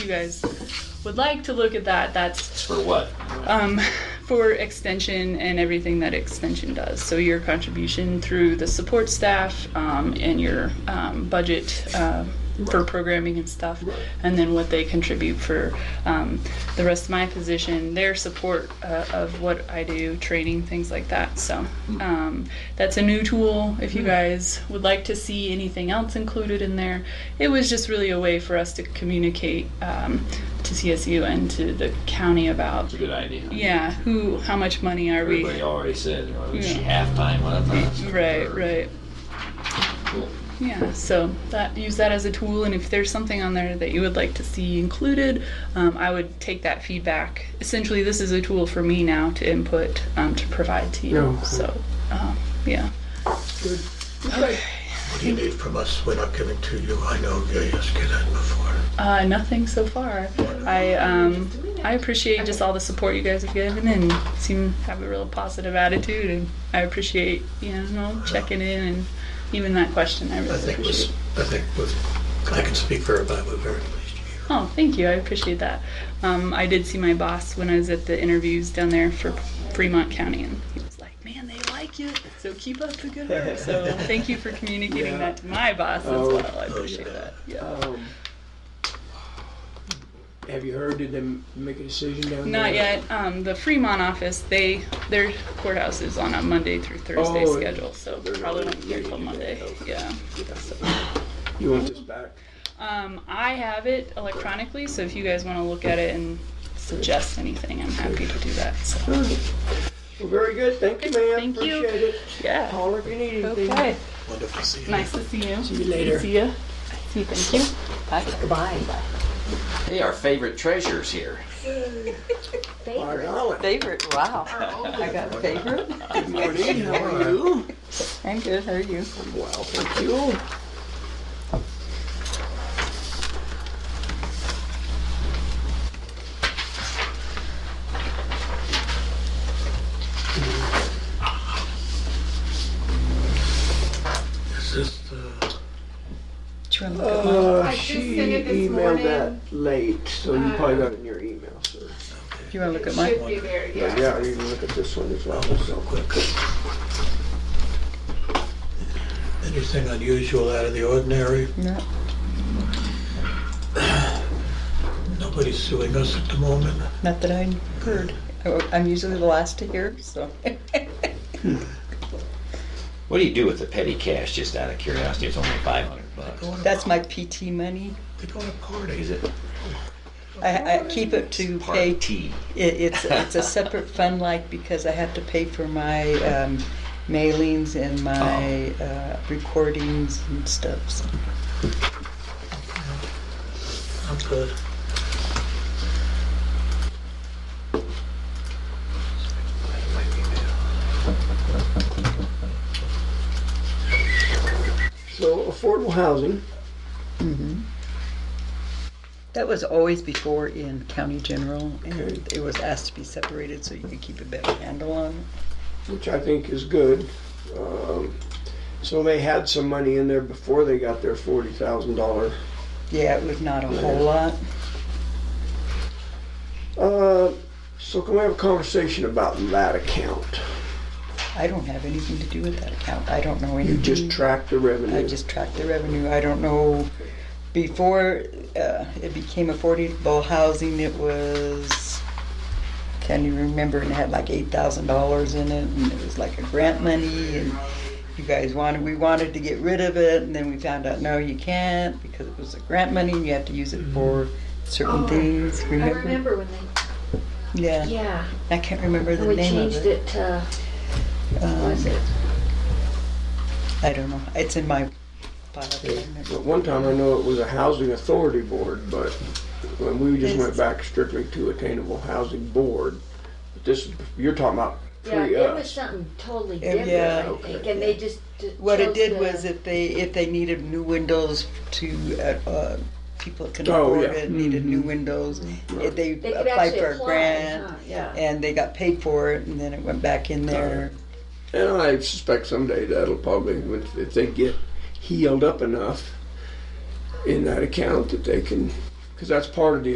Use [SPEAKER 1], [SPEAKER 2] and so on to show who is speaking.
[SPEAKER 1] you guys would like to look at that, that's
[SPEAKER 2] For what?
[SPEAKER 1] um, for extension and everything that extension does. So your contribution through the support staff um, and your um, budget uh, for programming and stuff, and then what they contribute for um, the rest of my position, their support uh, of what I do, training, things like that. So um, that's a new tool. If you guys would like to see anything else included in there, it was just really a way for us to communicate um, to CSU and to the county about
[SPEAKER 2] It's a good idea.
[SPEAKER 1] yeah, who, how much money are we?
[SPEAKER 2] Everybody already said, well, is she
[SPEAKER 1] Yeah.
[SPEAKER 2] halftime on it?
[SPEAKER 1] Right, right.
[SPEAKER 2] Cool.
[SPEAKER 1] Yeah, so that use that as a tool, and if there's something on there that you would like to see included, um, I would take that feedback. Essentially, this is a tool for me now to input um, to provide to you.
[SPEAKER 3] Yeah, okay.
[SPEAKER 1] So, um, yeah.
[SPEAKER 4] What do you need from us? We're not giving to you. I know you asked you that before.
[SPEAKER 1] Uh, nothing so far. I um, I appreciate just all the support you guys have given and seem to have a real positive attitude and I appreciate you know checking in and even that question I really
[SPEAKER 4] I think was,
[SPEAKER 1] appreciate.
[SPEAKER 4] I think was, I can speak for everybody. We're very pleased to hear.
[SPEAKER 1] Oh, thank you. I appreciate that. Um, I did see my boss when I was at the interviews down there for Fremont County, and he was like, "Man, they like you, so keep up the good work." So thank you for communicating
[SPEAKER 3] Yeah.
[SPEAKER 1] that to my boss as
[SPEAKER 3] Oh.
[SPEAKER 1] well. I appreciate
[SPEAKER 4] yeah.
[SPEAKER 1] that. Yeah.
[SPEAKER 3] Um, have you heard? Did they make a decision down there?
[SPEAKER 1] Not yet. Um, the Fremont office, they their courthouse is on a Monday through Thursday
[SPEAKER 3] Oh,
[SPEAKER 1] schedule, so
[SPEAKER 3] they're
[SPEAKER 1] probably
[SPEAKER 3] not
[SPEAKER 1] won't hear
[SPEAKER 3] ready
[SPEAKER 1] till
[SPEAKER 3] to do
[SPEAKER 1] Monday.
[SPEAKER 3] that, okay.
[SPEAKER 1] Yeah.
[SPEAKER 3] You want this back?
[SPEAKER 1] Um, I have it electronically, so if you guys want to look at it and suggest anything, I'm happy to do that. So
[SPEAKER 3] Well, very good. Thank you, ma'am.
[SPEAKER 1] Thank you.
[SPEAKER 3] Appreciate it.
[SPEAKER 1] yeah.
[SPEAKER 3] Call if you need anything.
[SPEAKER 1] Okay.
[SPEAKER 4] Wonderful to see you.
[SPEAKER 1] Nice to see you.
[SPEAKER 3] See you later.
[SPEAKER 1] See ya. See you. Thank you. Bye.
[SPEAKER 5] Bye.
[SPEAKER 2] Hey, our favorite treasure's here.
[SPEAKER 3] Mark
[SPEAKER 5] Favorite.
[SPEAKER 3] Allen.
[SPEAKER 5] Favorite. Wow. I got favorite.
[SPEAKER 3] Good morning. How are you?
[SPEAKER 5] I'm good. How are you?
[SPEAKER 3] Well, thank you.
[SPEAKER 4] Is this uh, the,
[SPEAKER 5] Do you want to look at mine?
[SPEAKER 3] Uh,
[SPEAKER 6] I just
[SPEAKER 3] she
[SPEAKER 6] sent it this
[SPEAKER 3] emailed that late, so you probably got it in your email, sir.
[SPEAKER 5] Do you want to look at mine?
[SPEAKER 6] Should be there,
[SPEAKER 3] But
[SPEAKER 6] yeah.
[SPEAKER 3] yeah, you can look at this one as well.
[SPEAKER 4] so
[SPEAKER 3] So.
[SPEAKER 4] oh, quick? Anything unusual out of the ordinary?
[SPEAKER 5] No.
[SPEAKER 4] Nobody's suing us at the moment.
[SPEAKER 5] Not that I heard. I- I'm usually the last to hear, so.
[SPEAKER 2] What do you do with the petty cash, just out of curiosity? It's only 500 bucks.
[SPEAKER 5] That's my PT money.
[SPEAKER 4] They go to
[SPEAKER 2] Is
[SPEAKER 4] parties.
[SPEAKER 2] it
[SPEAKER 5] I, I keep it to pay.
[SPEAKER 2] part T?
[SPEAKER 5] It, it's it's a separate fund, like because I have to pay for my um, mailings and my uh, recordings and stuff. So.
[SPEAKER 4] I'm good.
[SPEAKER 3] so affordable housing.
[SPEAKER 5] That was always before in county general, and it was asked to be separated so you could keep a better handle on it.
[SPEAKER 3] which I think is good. Um, so they had some money in there before they got their forty thousand dollar.
[SPEAKER 5] Yeah, it was not a whole lot.
[SPEAKER 3] Uh, so can we have a conversation about that account?
[SPEAKER 5] I don't have anything to do with that account. I don't know
[SPEAKER 3] You
[SPEAKER 5] anything.
[SPEAKER 6] Mm-hmm.
[SPEAKER 3] just track the revenue.
[SPEAKER 5] I just track the revenue. I don't know, before uh, it became affordable housing, it was, can you remember, and it had like eight thousand dollars in it, and it was like a grant money, and you guys wanted, we wanted to get rid of it, and then we found out, no, you can't, because it was a grant money, and you have to use it for certain
[SPEAKER 6] Oh,
[SPEAKER 5] things,
[SPEAKER 6] I
[SPEAKER 5] remember?
[SPEAKER 6] remember when they,
[SPEAKER 5] Yeah,
[SPEAKER 6] yeah,
[SPEAKER 5] I can't remember the
[SPEAKER 6] we
[SPEAKER 5] name of
[SPEAKER 6] changed
[SPEAKER 5] it.
[SPEAKER 6] it to, what
[SPEAKER 5] Um,
[SPEAKER 6] was it?
[SPEAKER 5] I don't know, it's in my file, I don't remember.
[SPEAKER 3] At one time, I know it was a housing authority board, but when we just went back strictly to attainable housing board. But this, you're talking about
[SPEAKER 6] Yeah,
[SPEAKER 3] pre
[SPEAKER 6] it was
[SPEAKER 3] us.
[SPEAKER 6] something totally
[SPEAKER 5] Yeah,
[SPEAKER 6] different,
[SPEAKER 5] yeah,
[SPEAKER 6] I
[SPEAKER 3] okay,
[SPEAKER 6] think, and they just. d-
[SPEAKER 5] What it
[SPEAKER 6] chose
[SPEAKER 5] did
[SPEAKER 6] the-
[SPEAKER 5] was if they, if they needed new windows to, uh, uh, people that can
[SPEAKER 3] Oh,
[SPEAKER 5] afford
[SPEAKER 3] yeah.
[SPEAKER 5] it, needed new windows, if they
[SPEAKER 6] They could
[SPEAKER 5] applied
[SPEAKER 6] actually
[SPEAKER 5] for a
[SPEAKER 6] apply,
[SPEAKER 5] grant,
[SPEAKER 6] huh, yeah.
[SPEAKER 5] and they got paid for it, and then it went back in there.
[SPEAKER 3] And I suspect someday that'll probably, if they get healed up enough in that account that they can Because that's part of the